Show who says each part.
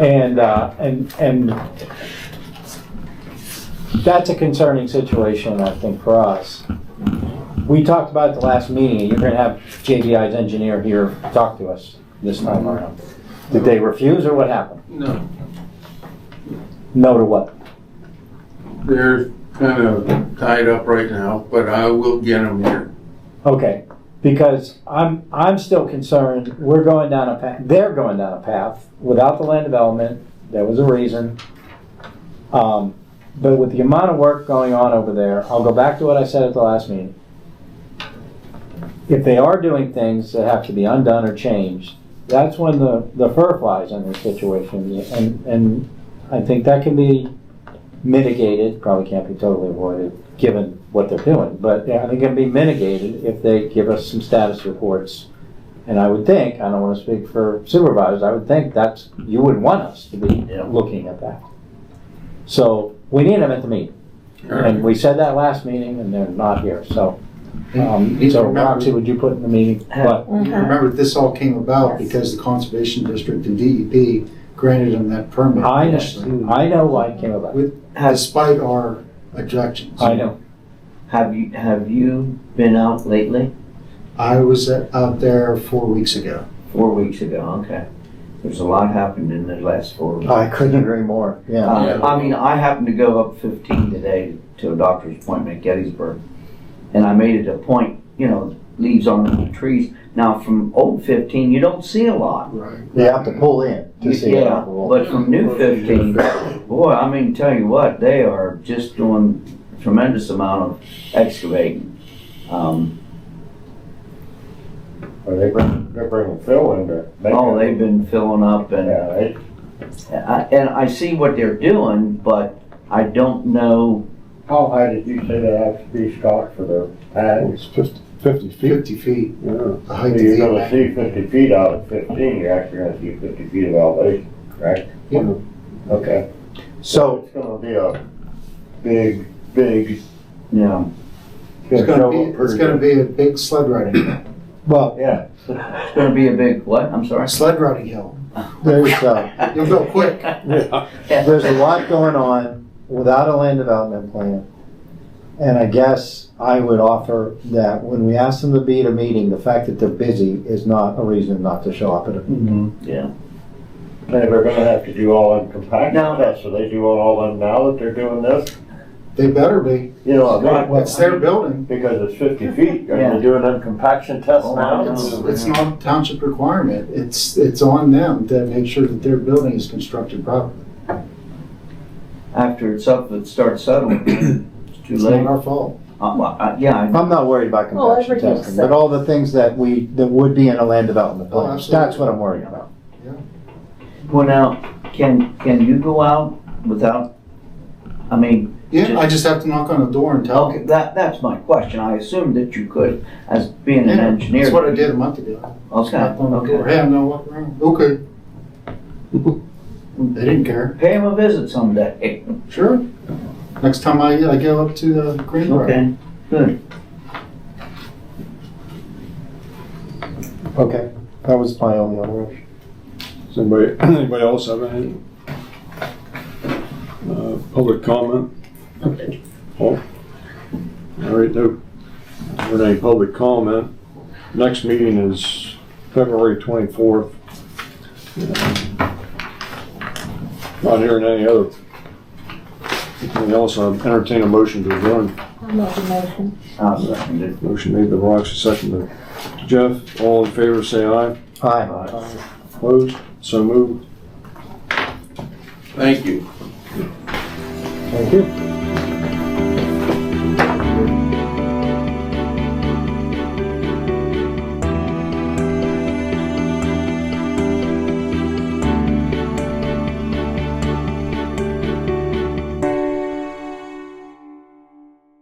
Speaker 1: And, uh, and, and that's a concerning situation, I think, for us. We talked about it the last meeting, and you're gonna have JDI's engineer here talk to us this time around. Did they refuse, or what happened?
Speaker 2: No,
Speaker 1: No to what?
Speaker 2: they're kind of tied up right now, but I will get them here.
Speaker 1: Okay, because I'm, I'm still concerned, we're going down a path, they're going down a path without the land development, there was a reason. Um, But with the amount of work going on over there, I'll go back to what I said at the last meeting. If they are doing things that have to be undone or changed, that's when the, the fur flies in this situation. And, and I think that can be mitigated, probably can't be totally avoided, given what they're doing, but I think it can be mitigated if they give us some status reports. And I would think, I don't wanna speak for supervisors, I would think that's, you would want us to be
Speaker 3: Yeah.
Speaker 1: looking at that. So, we need them at the meeting, and we said that last meeting, and they're not here, so, um,
Speaker 3: Mm-hmm.
Speaker 4: Please
Speaker 1: so
Speaker 4: remember-
Speaker 1: Roxy, would you put in the meeting? But,
Speaker 4: You Remember, this all came about because the Conservation District and DEP granted them that permit
Speaker 1: I,
Speaker 4: initially,
Speaker 1: I know Mm-hmm. why it came about,
Speaker 3: Has,
Speaker 4: despite our objections.
Speaker 1: I know,
Speaker 3: have you, have you been out lately?
Speaker 4: I was out there four weeks ago.
Speaker 3: Four weeks ago, okay. There's a lot happened in the last four weeks.
Speaker 1: I couldn't agree more, Oh, yeah.
Speaker 3: Uh, I mean, I happened to go up fifteen today to a doctor's appointment at Gettysburg. And I made it a point, you know, leaves on the trees. Now, from old fifteen, you don't see a lot.
Speaker 4: Right.
Speaker 1: You have to pull in
Speaker 3: Yeah, but from new fifteen, boy, I mean, tell you what, they are just doing tremendous amount of excavating. Um,
Speaker 5: Well, they bring, they're bringing Phil in to make
Speaker 3: oh,
Speaker 5: it.
Speaker 3: they've been filling up and
Speaker 5: Yeah, they,
Speaker 3: I- And I see what they're doing, but I don't know,
Speaker 5: how high did you say they have to be stocked for the pad?
Speaker 6: It's fifty, fifty feet,
Speaker 4: Fifty feet,
Speaker 6: yeah.
Speaker 4: the height of
Speaker 5: You're
Speaker 4: the
Speaker 5: gonna
Speaker 4: elevation.
Speaker 5: see fifty feet out of fifteen, you're actually gonna see fifty feet of elevation, correct?
Speaker 4: Yeah.
Speaker 5: Okay.
Speaker 4: So
Speaker 5: It's gonna be a big, big.
Speaker 3: you know,
Speaker 4: it's gonna
Speaker 5: show
Speaker 4: be,
Speaker 5: up pretty
Speaker 4: it's gonna
Speaker 5: good.
Speaker 4: be a big sled riding, hill.
Speaker 1: Well,
Speaker 5: Yeah.
Speaker 3: it's gonna be a big, what, I'm sorry?
Speaker 4: sled riding hill.
Speaker 1: there's, uh,
Speaker 4: You'll go quick.
Speaker 1: there's a lot going on without a land development plan. And I guess I would offer that when we ask them to be at a meeting, the fact that they're busy is not a reason not to show up at a meeting.
Speaker 3: Yeah,
Speaker 5: They were gonna have to do all them
Speaker 3: No.
Speaker 5: compaction tests, so they do all them now that they're doing this,
Speaker 4: They better be.
Speaker 5: you know, I mean,
Speaker 3: Well,
Speaker 4: It's their building.
Speaker 5: because it's fifty feet,
Speaker 3: Yeah.
Speaker 5: are they doing them compaction tests
Speaker 3: Oh,
Speaker 5: now?
Speaker 3: it's-
Speaker 4: It's not a township requirement. It's, it's on them to make sure that their building is constructed properly.
Speaker 3: after it's up, it starts settling, it's too
Speaker 4: It's
Speaker 3: late.
Speaker 4: not our fault.
Speaker 3: Uh, well, uh, Yeah, I-
Speaker 1: I'm not worried about
Speaker 7: Well,
Speaker 1: compaction
Speaker 7: everything's
Speaker 1: testing, but all the things that we, that would be in a land development
Speaker 4: Oh,
Speaker 1: plan.
Speaker 4: absolutely.
Speaker 1: That's what I'm worried about.
Speaker 3: well now, can, can you go out without, I mean,
Speaker 4: Yeah, I just have to knock on the door and tell
Speaker 3: okay,
Speaker 4: them.
Speaker 3: that, that's my question, I assumed that you could, as being an
Speaker 4: Yeah,
Speaker 3: engineer.
Speaker 4: That's what I did a month ago.
Speaker 3: Okay,
Speaker 4: Knocked on the door,
Speaker 3: okay.
Speaker 4: hey, I'm gonna walk around. Okay. They didn't care.
Speaker 3: Pay him a visit someday.
Speaker 4: Sure. Next time I, I go up to the Green Park.
Speaker 3: Okay, good.
Speaker 1: Okay, that was my only other issue.
Speaker 6: Does anybody, anybody else have any? Uh, public comment? Oh, all right, no, not any public comment. Next meeting is February twenty-fourth. Uh, Not hearing any other. Anything else, I entertain a motion to adjourn.
Speaker 7: I'm not a motion.
Speaker 3: I'll second it.
Speaker 6: Motion made by Roxy, second by Jeff, all in favor, say aye.
Speaker 1: Aye.
Speaker 6: Opposed, so moved.
Speaker 2: Thank you.
Speaker 1: Thank you.